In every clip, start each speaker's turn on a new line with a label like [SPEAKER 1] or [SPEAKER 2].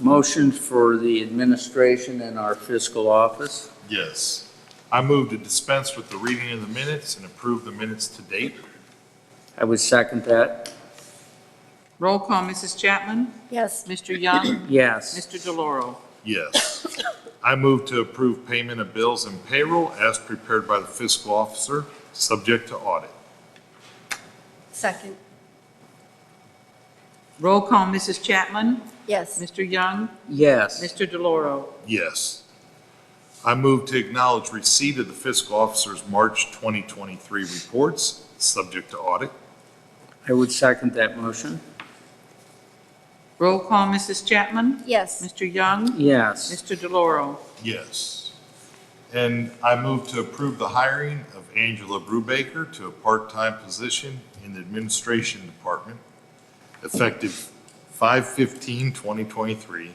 [SPEAKER 1] motion for the administration and our fiscal office.
[SPEAKER 2] Yes. I move to dispense with the reading of the minutes and approve the minutes to date.
[SPEAKER 1] I would second that.
[SPEAKER 3] Roll call, Mrs. Chapman?
[SPEAKER 4] Yes.
[SPEAKER 3] Mr. Young?
[SPEAKER 1] Yes.
[SPEAKER 3] Mr. DeLauro?
[SPEAKER 2] Yes. I move to approve payment of bills and payroll as prepared by the fiscal officer, subject to audit.
[SPEAKER 4] Second.
[SPEAKER 3] Roll call, Mrs. Chapman?
[SPEAKER 4] Yes.
[SPEAKER 3] Mr. Young?
[SPEAKER 1] Yes.
[SPEAKER 3] Mr. DeLauro?
[SPEAKER 2] Yes. I move to acknowledge receipt of the fiscal officer's March 2023 reports, subject to audit.
[SPEAKER 1] I would second that motion.
[SPEAKER 3] Roll call, Mrs. Chapman?
[SPEAKER 4] Yes.
[SPEAKER 3] Mr. Young?
[SPEAKER 1] Yes.
[SPEAKER 3] Mr. DeLauro?
[SPEAKER 2] Yes. And I move to approve the hiring of Angela Brubaker to a part-time position in the Administration Department, effective 5/15/2023,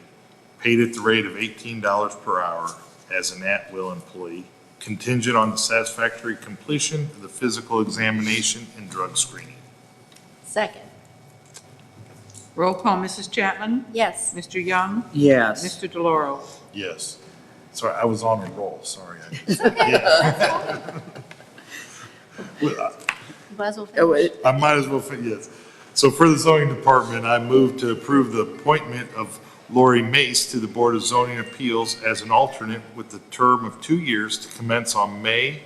[SPEAKER 2] paid at the rate of $18 per hour as an at-will employee, contingent on the satisfactory completion of the physical examination and drug screening.
[SPEAKER 4] Second.
[SPEAKER 3] Roll call, Mrs. Chapman?
[SPEAKER 4] Yes.
[SPEAKER 3] Mr. Young?
[SPEAKER 1] Yes.
[SPEAKER 3] Mr. DeLauro?
[SPEAKER 2] Yes. Sorry, I was on a roll, sorry. I- Yeah.
[SPEAKER 4] Might as well
[SPEAKER 1] Oh,
[SPEAKER 4] finish.
[SPEAKER 1] it-
[SPEAKER 2] I might as well, fit yes. So for the zoning department, I move to approve the appointment of Lori Mace to the Board of Zoning Appeals as an alternate with the term of two years to commence on May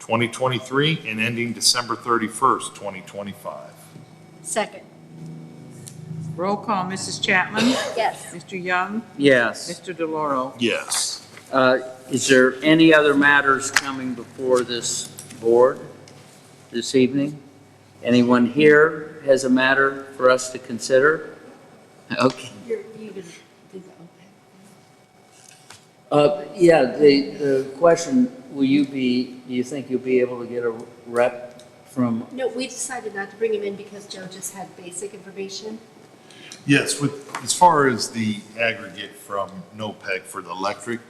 [SPEAKER 2] 2023 and ending December 31st, 2025.
[SPEAKER 4] Second.
[SPEAKER 3] Roll call, Mrs. Chapman?
[SPEAKER 4] Yes.
[SPEAKER 3] Mr. Young?
[SPEAKER 1] Yes.
[SPEAKER 3] Mr. DeLauro?
[SPEAKER 2] Yes.
[SPEAKER 1] Uh, Is there any other matters coming before this board this evening? Anyone here has a matter for us to consider? Okay.
[SPEAKER 4] You're, you can do that.
[SPEAKER 1] Uh, Yeah, the, the question, will you be, do you think you'll be able to get a rep from,
[SPEAKER 5] No, we decided not to bring him in because Joe just had basic information.
[SPEAKER 2] Yes, with, as far as the aggregate from NOPEC for the electric,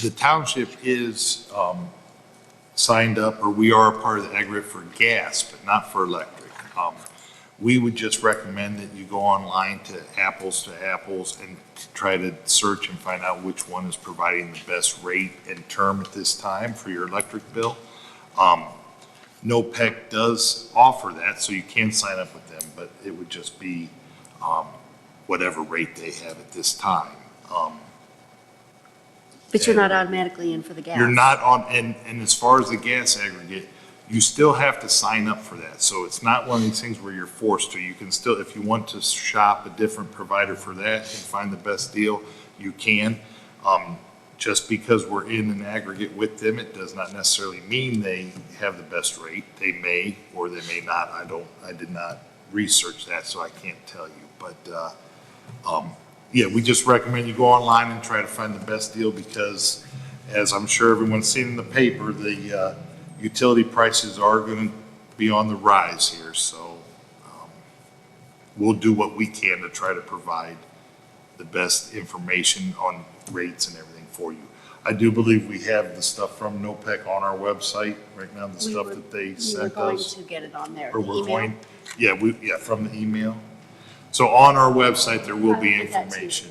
[SPEAKER 2] the township is um, signed up, or we are a part of the aggregate for gas, but not for electric. Um, We would just recommend that you go online to Apples to Apples and try to search and find out which one is providing the best rate and term at this time for your electric bill. Um, NOPEC does offer that, so you can sign up with them, but it would just be um, whatever rate they have at this time. Um,
[SPEAKER 5] But you're not automatically in for the gas.
[SPEAKER 2] You're not on, and, and as far as the gas aggregate, you still have to sign up for that. So it's not one of these things where you're forced to. You can still, if you want to shop a different provider for that and find the best deal, you can. Um, Just because we're in an aggregate with them, it does not necessarily mean they have the best rate. They may or they may not. I don't, I did not research that, so I can't tell you. But, uh, yeah, we just recommend you go online and try to find the best deal because, as I'm sure everyone's seen in the paper, the uh, utility prices are going to be on the rise here, so um, we'll do what we can to try to provide the best information on rates and everything for you. I do believe we have the stuff from NOPEC on our website right now, the
[SPEAKER 5] We
[SPEAKER 2] stuff
[SPEAKER 5] were-
[SPEAKER 2] that they
[SPEAKER 5] We were
[SPEAKER 2] sent
[SPEAKER 5] going
[SPEAKER 2] us.
[SPEAKER 5] to get it on there.
[SPEAKER 2] Or
[SPEAKER 5] the
[SPEAKER 2] we're
[SPEAKER 5] email.
[SPEAKER 2] going, yeah, we, yeah, from the email. So on our website, there will be
[SPEAKER 5] I'll put that too.
[SPEAKER 2] information,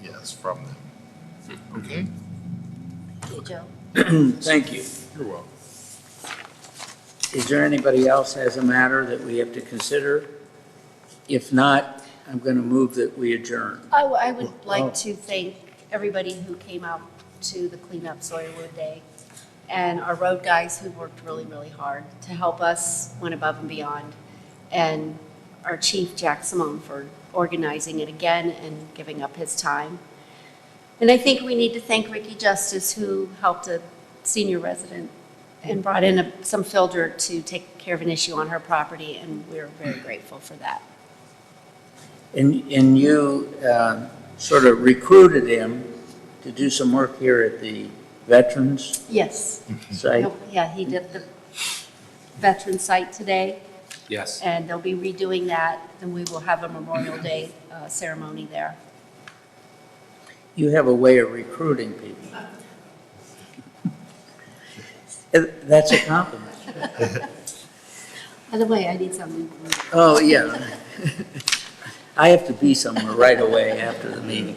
[SPEAKER 2] yes, from them. Okay?
[SPEAKER 5] Hey, Joe.
[SPEAKER 1] thank you.
[SPEAKER 2] You're welcome.
[SPEAKER 1] Is there anybody else has a matter that we have to consider? If not, I'm going to move that we adjourn.
[SPEAKER 5] I, w- I would
[SPEAKER 1] oh.
[SPEAKER 5] like to thank everybody who came out to the cleanup Sawyerwood Day and our road guys who worked really, really hard to help us, went above and beyond. And our chief, Jack Simone, for organizing it again and giving up his time. And I think we need to thank Ricky Justice, who helped a senior resident and brought in a- some filter to take care of an issue on her property, and we're very grateful for that.
[SPEAKER 1] And, and you uh, sort of recruited him to do some work here at the Veterans
[SPEAKER 5] Yes.
[SPEAKER 1] site?
[SPEAKER 5] Nope, Yeah, he did the veteran site today,
[SPEAKER 6] Yes.
[SPEAKER 5] and they'll be redoing that, and we will have a Memorial Day uh, ceremony there.
[SPEAKER 1] You have a way of recruiting people. Eh, That's a compliment.
[SPEAKER 5] By the way, I need something.
[SPEAKER 1] Oh, yeah. I have to be somewhere right away after the meeting.